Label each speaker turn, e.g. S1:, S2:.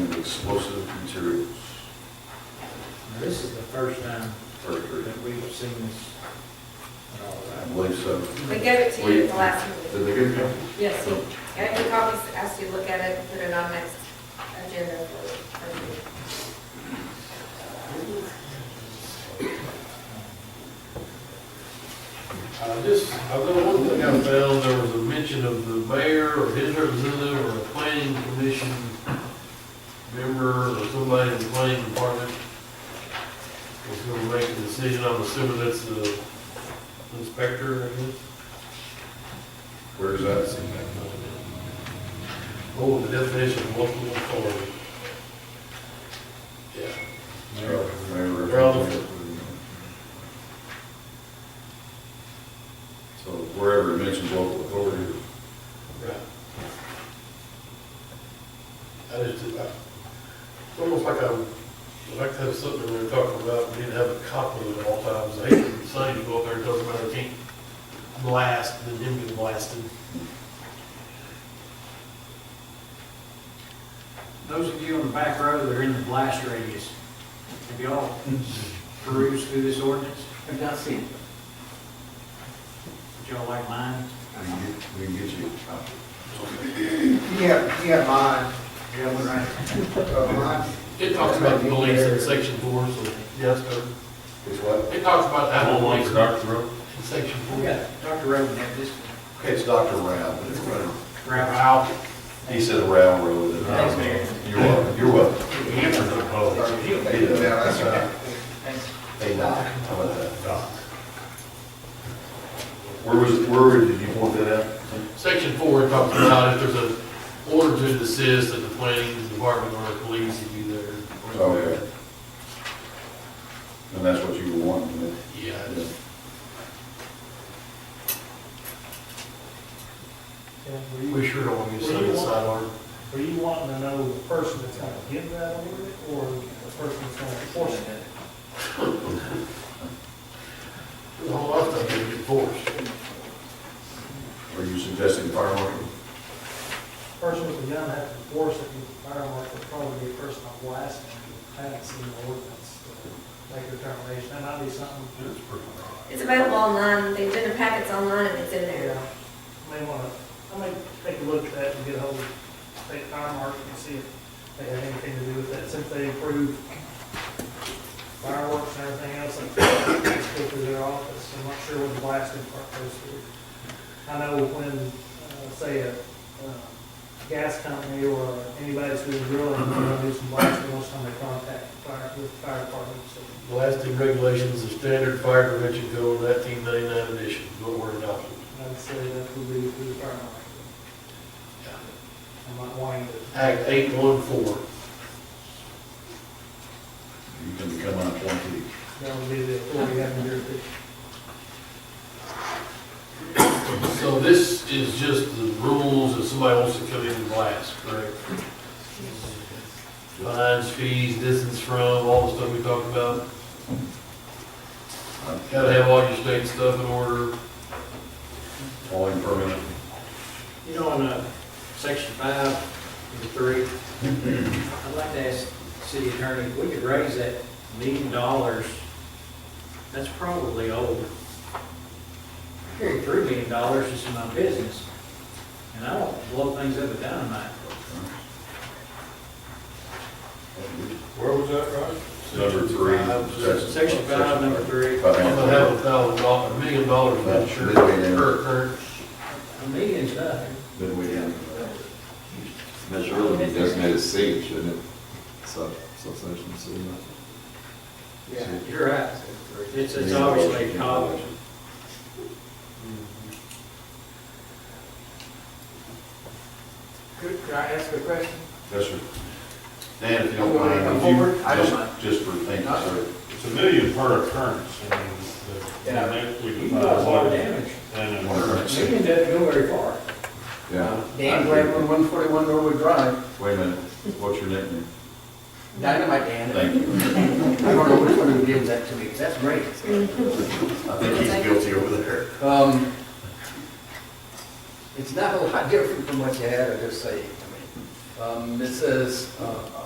S1: explosive materials.
S2: Now, This is the first time
S1: First reading.
S2: that we've seen this at all,
S1: I
S2: right?
S1: believe so.
S3: We gave it to you at the last meeting.
S1: Did they give you?
S3: Yes, he gave me copies, asked you to look at it, and put it on next agenda for, for you.
S4: Uh, Just, I've got one thing I found, there was a mention of the mayor or his representative or a planning commission member or somebody in the planning department was gonna make a decision, I'm assuming that's the inspector, I guess.
S1: Where is that?
S4: Oh, the definition of local authority. Yeah, Relevant.
S1: So wherever it mentions local authority,
S4: right. I just, I, it's almost like I would like to have something we were talking about, we need to have a copy of it at all times. I hate for Sonny to go up there and talk about it, can't blast, and then him get blasted.
S5: Those of you on the back row that are in the blast radius, have y'all perused through this ordinance?
S6: I've not seen it.
S5: Would y'all like mine?
S1: we can get, we can get you a copy.
S6: Yeah, yeah, mine. Yeah, we're right.
S4: It talks about the police in section four, so, yes, sir.
S1: It's what?
S4: It talks about that police
S1: Dr. Rowe?
S4: in section four.
S5: Yeah, Dr. Rowan had this
S1: Okay, it's Dr. Rao, but it's whatever.
S5: grab out.
S1: He said Rao Rowe.
S5: Thanks, Mayor.
S1: You're welcome, you're welcome.
S6: Sorry.
S1: Yeah, that's right.
S6: Thanks.
S1: Hey, Doc, how about that? Doc. Where was, where did you point that out?
S4: Section four talks about if there's an order to desist that the planning department or the police would be there.
S1: Oh, yeah. And that's what you were wanting, yeah?
S4: Yeah, I just- we sure don't want to get stuck in the sidearm.
S7: Are you wanting to know the person that's gonna give that order, or the person that's gonna enforce it?
S4: There's a whole lot of things to enforce.
S1: Are you suggesting fire marshal?
S7: The Person with the gun has to enforce it, and the fire marshal would probably be a person on blast, and I haven't seen the ordinance to make a determination, that might be something,
S3: It's available online, the agenda packet's online, and it's in
S7: yeah,
S3: there.
S7: may wanna, I may take a look at that and get hold of state fire marshal and see if they have anything to do with that, since they approve fireworks and everything else, like, go through their office, I'm not sure when the blasting part goes through. I know when, uh, say, a, uh, gas company or anybody that's doing drilling, they want to do some blasting, most time they contact the fire, with the fire department, so.
S4: Blasting regulations, the standard fire prevention code, nineteen ninety-nine edition, go word adopted.
S7: I'd say that would be through the fire marshal. I'm not wanting to,
S4: Act eight one four.
S1: You can become an appointee.
S7: that would be the authority having your,
S4: So this is just the rules if somebody wants to come in and blast, correct? Fines, fees, distance from, all the stuff we talked about. Gotta have all your state stuff in order.
S1: All in permanent.
S5: You know, in uh, section five, number three, I'd like to ask the city attorney, if we could raise that million dollars, that's probably old. I carry three million dollars just in my business, and I don't blow things up with dynamite.
S4: Where was that, right?
S1: Number three.
S5: Section five, number three,
S1: Five
S4: I'm gonna have a
S1: hundred.
S4: thousand dollars, a million dollars in
S1: That's
S4: insurance,
S1: million.
S4: current, current.
S5: a million's nothing.
S1: Then we end.
S8: That should really be designated C, shouldn't it? Sub, subsection C.
S6: Yeah.
S5: You're right. It's, it's obviously
S6: uh,
S5: college.
S6: Could, could I ask a question?
S1: Yes, sir. Dan, if you don't
S6: You want me to
S1: mind,
S6: come
S1: would you,
S6: forward? I don't mind.
S1: just, just for thinking, sir.
S9: It's a million per occurrence, I mean, the,
S5: Yeah.
S9: the- we
S5: You
S9: can
S5: can
S9: buy
S5: cause a lot
S9: one,
S5: of damage.
S9: and
S1: One
S9: a-
S1: occurrence.
S5: You can doesn't go very far.
S8: Yeah.
S6: Dan Glenn, one forty-one Norwood Drive,
S1: Wait a minute, what's your nickname?
S6: Dynamite Dan.
S1: Thank you.
S6: I don't know which one who gives that to me, 'cause that's great.
S1: I think he's guilty over there.
S6: Um, it's not a lot different from what you had, I just say, I mean, um, it says, uh,